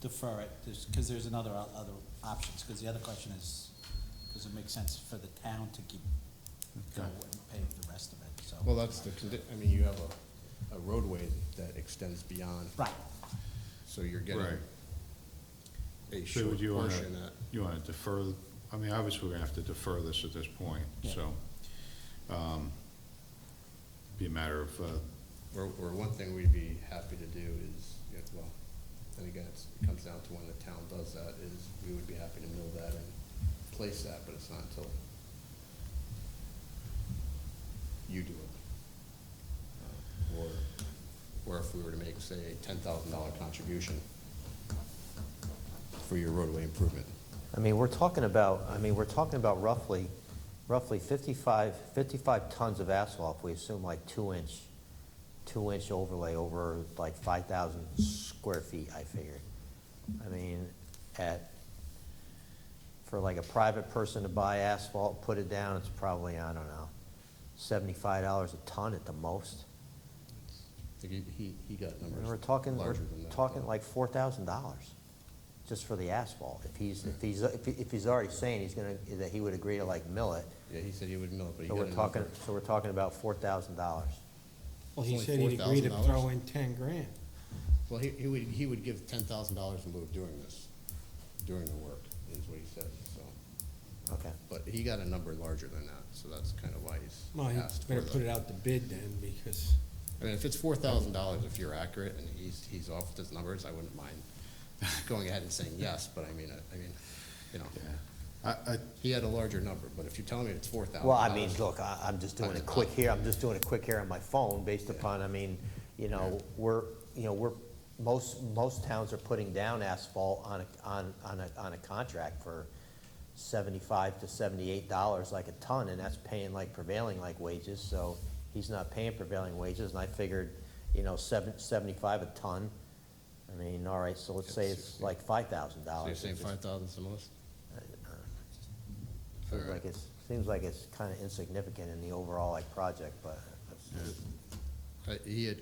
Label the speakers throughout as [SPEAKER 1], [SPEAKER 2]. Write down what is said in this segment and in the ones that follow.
[SPEAKER 1] defer it, because there's another, o- other options, because the other question is, does it make sense for the town to keep, go
[SPEAKER 2] Okay.
[SPEAKER 1] and pay the rest of it, so.
[SPEAKER 2] Well, that's the condi, I mean, you have a, a roadway that extends beyond,
[SPEAKER 1] Right,
[SPEAKER 2] so you're getting
[SPEAKER 3] Right.
[SPEAKER 2] a
[SPEAKER 3] So
[SPEAKER 2] short
[SPEAKER 3] would you want to,
[SPEAKER 2] portion at,
[SPEAKER 3] you want to defer, I mean, obviously, we're going to have to defer this at this point,
[SPEAKER 1] Yeah.
[SPEAKER 3] so. um, Be a matter of, uh,
[SPEAKER 2] or, or one thing we'd be happy to do is, yeah, well, and again, it's, it comes down to when the town does that, is we would be happy to mill that and place that, but it's not until you do it. Uh, Or, or if we were to make, say, a ten thousand dollar contribution for your roadway improvement.
[SPEAKER 4] I mean, we're talking about, I mean, we're talking about roughly, roughly 55, 55 tons of asphalt, if we assume like two-inch, two-inch overlay over like 5,000 square feet, I figured. I mean, at, for like a private person to buy asphalt, put it down, it's probably, I don't know, $75 a ton at the most.
[SPEAKER 2] I think He, he, he got
[SPEAKER 4] I mean,
[SPEAKER 2] numbers
[SPEAKER 4] We're talking, we're
[SPEAKER 2] larger than that.
[SPEAKER 4] talking
[SPEAKER 2] though.
[SPEAKER 4] like four thousand dollars just for the asphalt. If he's, if he's, if he- if he's already saying he's gonna, that he would agree to like mill it,
[SPEAKER 2] Yeah, he said he would mill it, but he
[SPEAKER 4] so
[SPEAKER 2] got
[SPEAKER 4] we're
[SPEAKER 2] a
[SPEAKER 4] talking,
[SPEAKER 2] number.
[SPEAKER 4] so we're talking about four thousand dollars.
[SPEAKER 5] Well, he
[SPEAKER 2] Only
[SPEAKER 5] said he'd agree to
[SPEAKER 2] $4,000?
[SPEAKER 5] throw in ten grand.
[SPEAKER 2] Well, he, he would, he would give ten thousand dollars in lieu of doing this, doing the work, is what he said, so.
[SPEAKER 4] Okay.
[SPEAKER 2] But he got a number larger than that, so that's kind of why he's
[SPEAKER 5] Well, he
[SPEAKER 2] asked for
[SPEAKER 5] better put it
[SPEAKER 2] the.
[SPEAKER 5] out to bid then, because,
[SPEAKER 2] I mean, if it's four thousand dollars, if you're accurate, and he's, he's off with his numbers, I wouldn't mind going ahead and saying yes, but I mean, I, I mean, you know,
[SPEAKER 3] I, I,
[SPEAKER 2] he had a larger number, but if you're telling me it's four thousand.
[SPEAKER 4] Well, I mean, look, I, I'm just doing
[SPEAKER 2] Times
[SPEAKER 4] it
[SPEAKER 2] a
[SPEAKER 4] quick
[SPEAKER 2] lot.
[SPEAKER 4] here, I'm just doing it quick here on my phone based
[SPEAKER 2] Yeah.
[SPEAKER 4] upon, I mean, you know,
[SPEAKER 2] Yeah.
[SPEAKER 4] we're, you know, we're, most, most towns are putting down asphalt on, a- on, on a, on a contract for seventy-five to seventy-eight dollars like a ton, and that's paying like prevailing like wages, so he's not paying prevailing wages, and I figured, you know, seven, seventy-five a ton. I mean, all right, so let's say
[SPEAKER 2] It's-
[SPEAKER 4] it's like five thousand
[SPEAKER 2] So
[SPEAKER 4] dollars. uh,
[SPEAKER 2] you're saying five thousand's the most?
[SPEAKER 4] Seems
[SPEAKER 2] Alright.
[SPEAKER 4] like it's, seems like it's kind of insignificant in the overall like project, but that's just-
[SPEAKER 2] I- He had,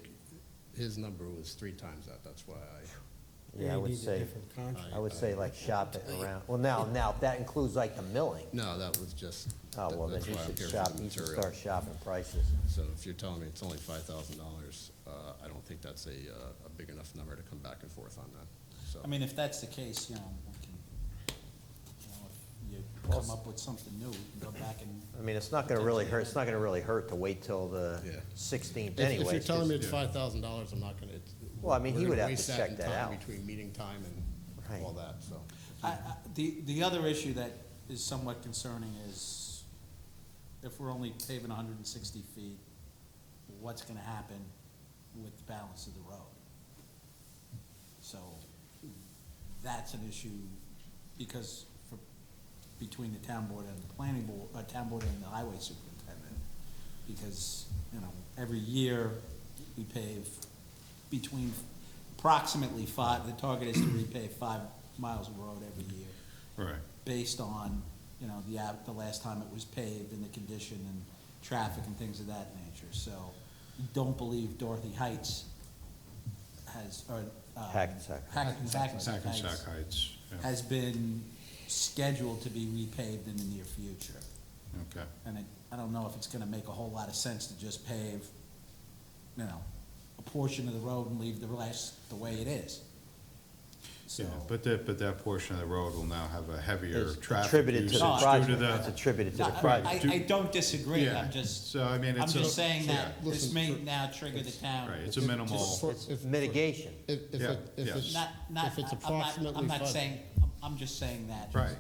[SPEAKER 2] his number was three times that, that's why I,
[SPEAKER 4] yeah, I
[SPEAKER 5] he
[SPEAKER 4] would
[SPEAKER 5] needs a
[SPEAKER 4] say,
[SPEAKER 5] different contract.
[SPEAKER 4] I would say like shop it around, well, now, now, if that includes like the milling,
[SPEAKER 2] no, that was just.
[SPEAKER 4] oh,
[SPEAKER 2] that-
[SPEAKER 4] well, then
[SPEAKER 2] that's
[SPEAKER 4] you
[SPEAKER 2] why I'm
[SPEAKER 4] should
[SPEAKER 2] here for
[SPEAKER 4] shop,
[SPEAKER 2] the
[SPEAKER 4] you should
[SPEAKER 2] material.
[SPEAKER 4] start shopping prices.
[SPEAKER 2] So if you're telling me it's only five thousand dollars, uh, I don't think that's a, uh, a big enough number to come back and forth on that, so.
[SPEAKER 1] I mean, if that's the case, you know, we can, you know, if you come up with something new, we can go back and,
[SPEAKER 4] I mean, it's not gonna really hurt, it's not gonna really hurt to wait till the
[SPEAKER 2] Yeah.
[SPEAKER 4] sixteenth
[SPEAKER 2] If-
[SPEAKER 4] anyway.
[SPEAKER 2] If you're telling me it's five thousand dollars, I'm not gonna, it's.
[SPEAKER 4] Well, I mean, he
[SPEAKER 2] we're
[SPEAKER 4] would
[SPEAKER 2] gonna
[SPEAKER 4] have to
[SPEAKER 2] waste
[SPEAKER 4] check
[SPEAKER 2] in
[SPEAKER 4] that
[SPEAKER 2] time
[SPEAKER 4] out.
[SPEAKER 2] Between meeting time
[SPEAKER 4] Right.
[SPEAKER 2] and all that, so.
[SPEAKER 1] I, I, the, the other issue that is somewhat concerning is if we're only paving hundred and sixty feet, what's gonna happen with the balance of the road? So, that's an issue, because for, between the town board and the planning board, uh, town board and the highway superintendent. Because, you know, every year, we pave between approximately five, the target is to repave five miles of road every year,
[SPEAKER 3] right,
[SPEAKER 1] based on, you know, the, av- the last time it was paved and the condition and traffic and things of that nature, so. we Don't believe Dorothy Heights has, or, um.
[SPEAKER 4] Hackensack.
[SPEAKER 1] Hackensack.
[SPEAKER 3] Hackensack
[SPEAKER 1] has-
[SPEAKER 3] Heights, yeah,
[SPEAKER 1] has been scheduled to be repaved in the near future.
[SPEAKER 3] okay.
[SPEAKER 1] And it- I don't know if it's gonna make a whole lot of sense to just pave, you know, a portion of the road and leave the rest the way it is.
[SPEAKER 3] Yeah,
[SPEAKER 1] So,
[SPEAKER 3] but that, but that portion of the road will now have a heavier
[SPEAKER 4] It's
[SPEAKER 3] traffic
[SPEAKER 4] attributed to
[SPEAKER 3] usage
[SPEAKER 4] the
[SPEAKER 3] due to
[SPEAKER 4] project, it's
[SPEAKER 3] the.
[SPEAKER 4] attributed to
[SPEAKER 1] I,
[SPEAKER 4] the project.
[SPEAKER 1] I- I don't disagree,
[SPEAKER 3] Yeah,
[SPEAKER 1] I'm just,
[SPEAKER 3] So, I mean,
[SPEAKER 1] I'm
[SPEAKER 3] it's a.
[SPEAKER 1] just saying that
[SPEAKER 3] yeah,
[SPEAKER 1] this
[SPEAKER 2] Listen,
[SPEAKER 1] may
[SPEAKER 2] for-
[SPEAKER 1] now trigger the town.
[SPEAKER 3] Right, it's a minimal,
[SPEAKER 2] for-
[SPEAKER 4] It's
[SPEAKER 2] if- for-
[SPEAKER 4] mitigation.
[SPEAKER 2] If, if
[SPEAKER 3] Yeah,
[SPEAKER 2] it, if
[SPEAKER 3] yeah.
[SPEAKER 2] it's,
[SPEAKER 1] Not, not,
[SPEAKER 2] if it's
[SPEAKER 1] I'm not,
[SPEAKER 2] approximately.
[SPEAKER 1] I'm not
[SPEAKER 2] five-
[SPEAKER 1] saying, I'm just saying that.
[SPEAKER 3] right,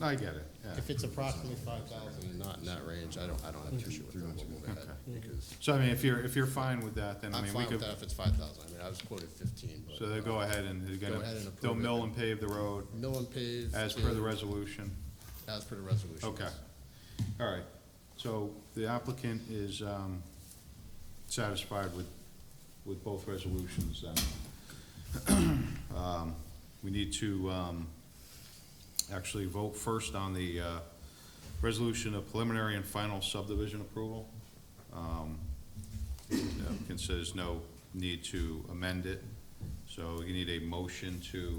[SPEAKER 3] I get it, yeah.
[SPEAKER 2] If it's approximately five thousand, not in that range, I don't, I don't have an issue with that, we'll move ahead, because
[SPEAKER 3] So I mean, if you're, if you're fine with that, then I
[SPEAKER 2] I'm
[SPEAKER 3] mean, we
[SPEAKER 2] fine with
[SPEAKER 3] could,
[SPEAKER 2] that if it's five thousand, I mean, I was quoted fifteen, but.
[SPEAKER 3] so they'll
[SPEAKER 2] uh,
[SPEAKER 3] go ahead and they're
[SPEAKER 2] Go
[SPEAKER 3] gonna,
[SPEAKER 2] ahead and approve
[SPEAKER 3] they'll
[SPEAKER 2] it.
[SPEAKER 3] mill and pave the road
[SPEAKER 2] Mill and pave.
[SPEAKER 3] as per the
[SPEAKER 2] is-
[SPEAKER 3] resolution.
[SPEAKER 2] As per the resolution.
[SPEAKER 3] Okay,
[SPEAKER 2] yes.
[SPEAKER 3] all right. So the applicant is um, satisfied with, with both resolutions then. Um, We need to um, actually vote first on the uh, resolution of preliminary and final subdivision approval. Um, The applicant says no need to amend it, so you need a motion to